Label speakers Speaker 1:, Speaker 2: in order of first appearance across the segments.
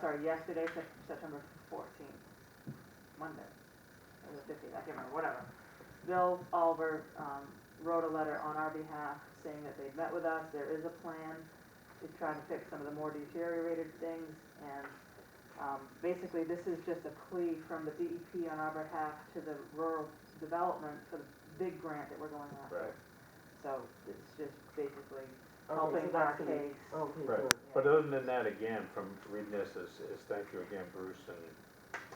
Speaker 1: sorry, yesterday, Sep- September fourteenth, Monday, or the fifteenth, I can't remember, whatever. Bill Oliver, um, wrote a letter on our behalf saying that they've met with us, there is a plan to try to fix some of the more deteriorated things, and, um, basically, this is just a plea from the DEP on our behalf to the rural development for the big grant that we're going after.
Speaker 2: Right.
Speaker 1: So it's just basically
Speaker 3: Okay,
Speaker 1: helping
Speaker 3: so
Speaker 1: our
Speaker 3: that's gonna-
Speaker 1: case.
Speaker 4: oh,
Speaker 3: Okay,
Speaker 2: Right,
Speaker 3: good.
Speaker 2: but uh, other than that, again, from reading this, is, is thank you again, Bruce, and,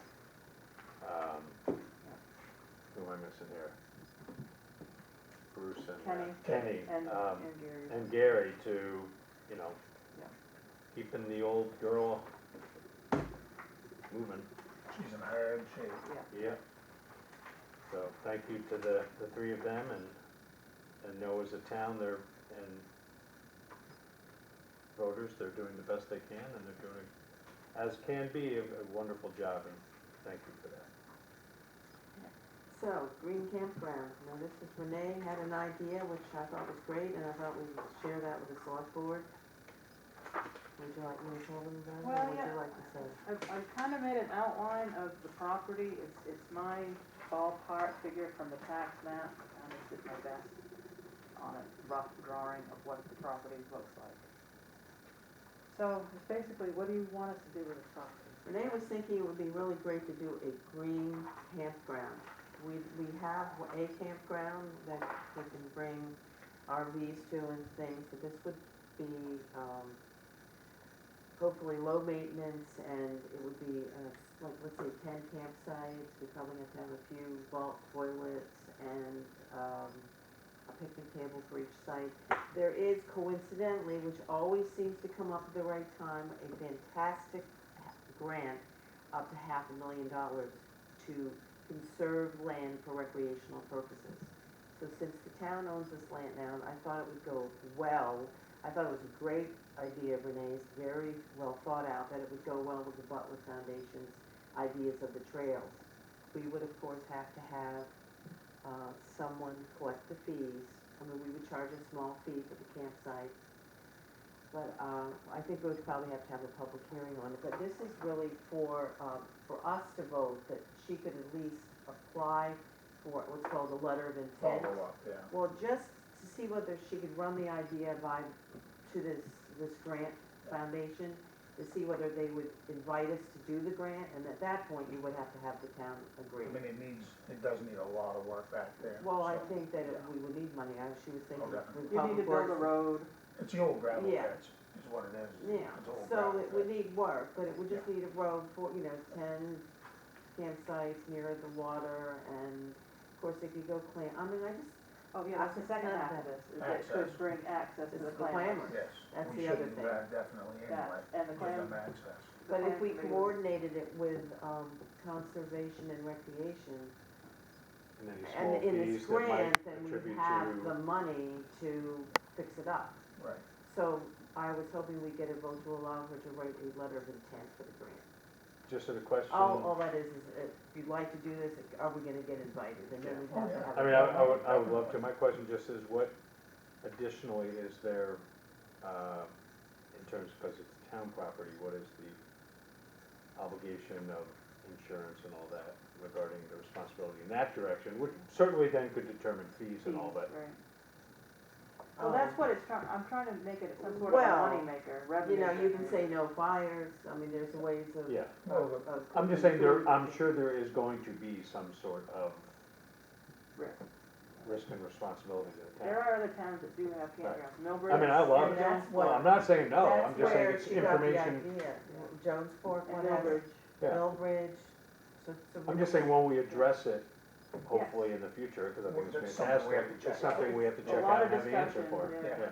Speaker 2: um, who am I missing here? Bruce and. uh,
Speaker 1: And,
Speaker 2: Kenny, um,
Speaker 1: and Gary.
Speaker 2: and Gary to, you know,
Speaker 1: Yeah.
Speaker 2: keeping the old girl moving,
Speaker 4: She's in hard shape.
Speaker 2: yeah. So thank you to the, the three of them, and, and know as a town, they're, and voters, they're doing the best they can, and they're doing, as can be, a a wonderful job, and thank you for that.
Speaker 3: So, green campground, now this is Renee had an idea, which I thought was great, and I thought we would share that with the select board. Would you like me to tell them about it,
Speaker 1: Well,
Speaker 3: or would
Speaker 1: yeah.
Speaker 3: you like to say?
Speaker 1: I've, I've kind of made an outline of the property, it's, it's my ballpark figure from the tax map, I just did my best on a rough drawing of what the property looks like. So, it's basically, what do you want us to do with the property?
Speaker 3: Renee was thinking it would be really great to do a green campground. We, we have a campground that we can bring RVs to and things, but this would be, um, hopefully low maintenance and it would be, uh, like, let's say ten campsites, we probably have to have a few vault toilets and, um, a picnic table for each site. There is coincidentally, which always seems to come up at the right time, a fantastic grant up to half a million dollars to conserve land for recreational purposes. So since the town owns this land now, I thought it would go well. I thought it was a great idea, Renee, it's very well thought out, that it would go well with the Butler Foundation's ideas of the trails. We would, of course, have to have, uh, someone collect the fees. I mean, we would charge a small fee for the campsite, but uh, I think we would probably have to have a public hearing on it, but this is really for, um, for us to vote that she could at least apply for what's called a letter of intent.
Speaker 4: Follow up, yeah.
Speaker 3: Well, just to see whether she could run the idea by, to this, this grant foundation, to see whether they would invite us to do the grant, and at that point, you would have to have the town agree.
Speaker 4: I mean, it needs, it does need a lot of work back there.
Speaker 3: Well, I
Speaker 4: so.
Speaker 3: think that we would need money, I, she was thinking.
Speaker 4: Okay.
Speaker 3: we
Speaker 1: You need to
Speaker 3: probably
Speaker 1: build a road,
Speaker 4: It's the old gravel
Speaker 3: Yeah.
Speaker 4: pits, is what it is.
Speaker 3: Yeah,
Speaker 4: It's old
Speaker 3: so
Speaker 4: gravel
Speaker 3: it would
Speaker 4: pits.
Speaker 3: need work, but it would just need a road for, you know, ten campsites near the water and of course they could go clam, I mean, I just,
Speaker 1: oh yeah, that's the second half of this, is that it could
Speaker 4: Access.
Speaker 1: bring access to
Speaker 3: It's
Speaker 1: the
Speaker 3: the
Speaker 1: clamor.
Speaker 3: clamor.
Speaker 4: Yes.
Speaker 3: That's
Speaker 4: we
Speaker 3: the other
Speaker 4: should do
Speaker 3: thing.
Speaker 4: that Definitely anyway,
Speaker 1: That, and the
Speaker 4: give
Speaker 1: clam,
Speaker 4: them access.
Speaker 1: the
Speaker 3: but if
Speaker 1: clam
Speaker 3: we
Speaker 1: committee.
Speaker 3: coordinated it with, um, conservation and recreation
Speaker 2: And any small
Speaker 3: and in
Speaker 2: fees
Speaker 3: this
Speaker 2: that might
Speaker 3: grant, then we
Speaker 2: attribute
Speaker 3: have the
Speaker 2: to,
Speaker 3: money to fix it up.
Speaker 4: Right.
Speaker 3: So I was hoping we'd get a vote to allow her to write a letter of intent for the grant.
Speaker 2: just a question.
Speaker 3: All, all that is, is uh, if you'd like to do this, are we gonna get invited? And then we'd
Speaker 4: Yeah. Oh,
Speaker 3: have to
Speaker 4: yeah.
Speaker 3: have.
Speaker 2: I
Speaker 3: a
Speaker 2: mean, I,
Speaker 3: vote.
Speaker 2: I would, I would love to, my question just is what additionally is there, uh, in terms, because it's town property, what is the obligation of insurance and all that regarding the responsibility in that direction, which certainly then could determine fees and all that.
Speaker 1: Right. Well,
Speaker 3: Um,
Speaker 1: that's what it's trying, I'm trying to make it some sort of a
Speaker 3: Well,
Speaker 1: moneymaker, revenue.
Speaker 3: You know, you can
Speaker 1: generator.
Speaker 3: say no fires, I mean, there's ways of.
Speaker 2: Yeah,
Speaker 4: Well,
Speaker 3: of- of-
Speaker 2: I'm just saying there, I'm sure there is going to be some sort of
Speaker 1: Risk.
Speaker 2: risk and responsibility to the
Speaker 1: There
Speaker 2: town.
Speaker 1: are other towns that do have campgrounds, Millbridge.
Speaker 2: I mean, I love
Speaker 3: And
Speaker 2: it,
Speaker 3: that's
Speaker 2: well,
Speaker 3: what-
Speaker 2: I'm not saying no, I'm just saying it's
Speaker 3: That's where
Speaker 2: information,
Speaker 3: she got the idea, Jones Fork,
Speaker 1: And
Speaker 3: whatever,
Speaker 1: Millbridge.
Speaker 2: yeah.
Speaker 3: Millbridge, so. so
Speaker 2: I'm just saying, when we address it, hopefully in the future, because I think
Speaker 4: Well,
Speaker 2: it's
Speaker 4: that's something we
Speaker 2: fantastic,
Speaker 4: have to check
Speaker 2: it's something we have to
Speaker 1: A
Speaker 2: check
Speaker 1: lot of
Speaker 2: out and have the answer
Speaker 1: discussion,
Speaker 2: for.
Speaker 1: yeah.
Speaker 4: Yeah,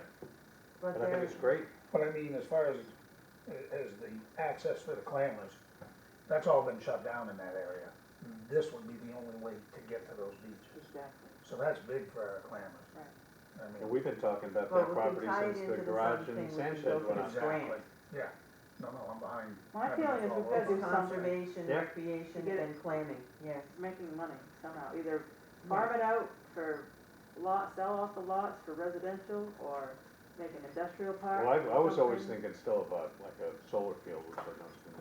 Speaker 3: But
Speaker 2: And I think
Speaker 3: there,
Speaker 2: it's great,
Speaker 4: but I mean, as far as, as the access for the clammers, that's all been shut down in that area. This would be the only way to get to those beaches.
Speaker 1: Exactly,
Speaker 4: So that's big for our clammers.
Speaker 1: Right.
Speaker 4: I mean.
Speaker 2: and we've been talking about
Speaker 3: Well,
Speaker 2: that
Speaker 3: we can
Speaker 2: property
Speaker 3: tie it
Speaker 2: since
Speaker 3: into
Speaker 2: the
Speaker 3: the
Speaker 2: garage
Speaker 3: something
Speaker 2: and
Speaker 3: we
Speaker 2: sand
Speaker 3: can
Speaker 2: shed
Speaker 3: go
Speaker 2: went up.
Speaker 3: through.
Speaker 4: Exactly,
Speaker 3: Grant.
Speaker 4: yeah. No, no, I'm behind.
Speaker 1: My
Speaker 4: having
Speaker 1: feeling is
Speaker 4: all
Speaker 1: we've
Speaker 4: over.
Speaker 1: gotta do something,
Speaker 3: conservation,
Speaker 2: Yeah.
Speaker 3: recreation,
Speaker 1: Get it.
Speaker 3: and clamming, yes.
Speaker 1: It's making money somehow, either farm it out for lot, sell off the lots for residential, or make an industrial park.
Speaker 2: Well, I, I was always
Speaker 1: something.
Speaker 2: thinking still about like a solar field, which I know has been